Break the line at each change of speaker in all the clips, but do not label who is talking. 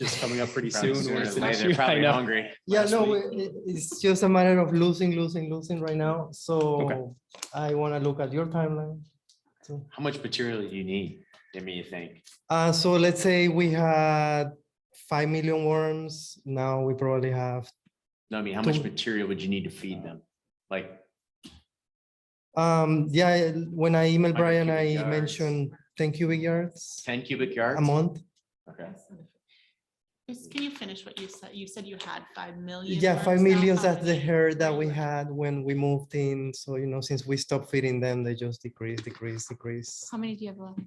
is coming up pretty
Probably
soon.
sooner
where
than
it's an
later.
issue. I
Probably
know.
hungry.
Yeah,
last
no,
week.
it- it- it's just a matter of losing, losing, losing right now. So I want to look at your timeline. So,
How much material do you need? I mean, you think?
uh, so let's say we had five million worms. Now we probably have,
No, I mean, how much
Don't-
material would you need to feed them? Like,
um, yeah, when I emailed
Hundred
Brian,
cubic
I
yards.
mentioned ten cubic yards
ten cubic
a
yards?
month.
Okay.
Just can you finish what you said? You said you had five million.
Yeah, five
worms now,
millions,
five
that's the herd that we
Right.
had when we moved in. So, you know, since we stopped feeding them, they just decrease, decrease, decrease.
How many do you have left?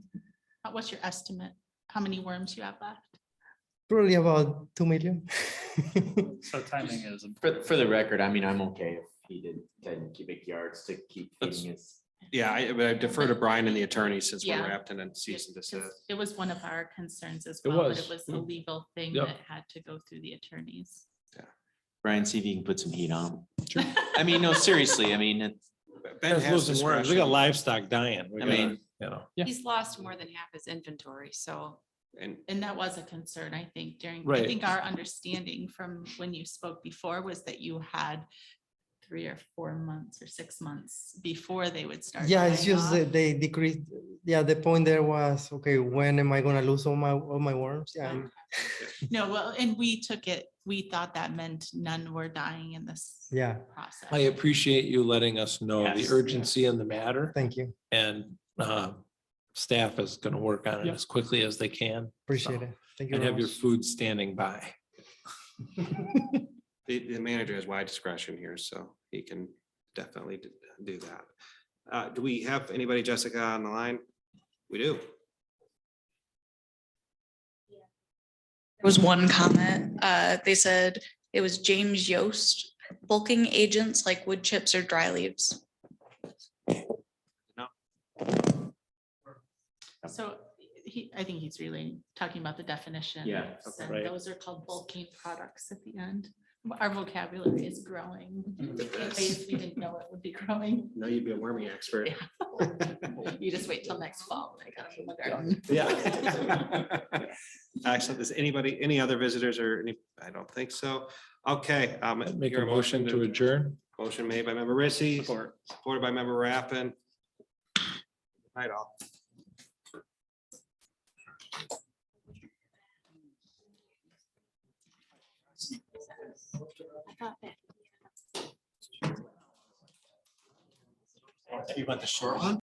Uh, What's your estimate? How many worms you have left?
Probably about two million.
So timing is.
For, for the record, I mean, I'm okay if he did ten cubic yards to keep
That's-
feeding us.
Yeah, I but I defer to Brian and the attorney since we're
Yeah.
wrapped in a
Yeah,
cease and
'cause
desist.
It was one of our concerns as
uh, It
well, but
was,
it was
yeah.
a legal thing
Yep.
that had to go through the attorneys.
Brian, see if you can put some heat on. him. I mean, no, seriously, I mean, it's-
Ben
That's
has
losing worms. We got
discretion,
livestock dying. We
I
gotta,
mean-
You know,
He's lost more than half his inventory, so
And
And that was a concern, I think, during, I
Right.
think our understanding from when you spoke before was that you had three or four months or six months before they would start.
Yeah, it's
dying
just
off.
that they decreased. Yeah, the point there was, okay, when am I gonna lose all my, all my worms? Yeah,
Ah.
and-
No, well, and we took it, we thought that meant none were dying in this
yeah,
process.
I appreciate you letting us know the
Yes.
urgency in the matter
thank you.
and uh, staff is going to work on it
Yeah.
as quickly as they can
Appreciate
So,
it. Thank you.
and
very
have your
much.
food standing by.
the, the manager has wide discretion here, so he can definitely d- do that. Uh, do we have anybody, Jessica, on the line? We do.
There was one comment, uh, they said it was James Yost, bulking agents like wood chips or dry leaves.
So he, I think he's really talking about the definition.
Yeah,
And
right.
those are called bulking products at the end. Our vocabulary is growing. In ways We didn't know it would be growing.
No, you'd be a worming expert.
You just wait till next fall. when I got from the garden.
Yeah. Excellent. Is anybody, any other visitors or any, I don't think so. Okay. um,
Make
your
a motion to adjourn.
Motion made by member Rissy. Support. Supported by member Rappin. Night all.
You want the short one?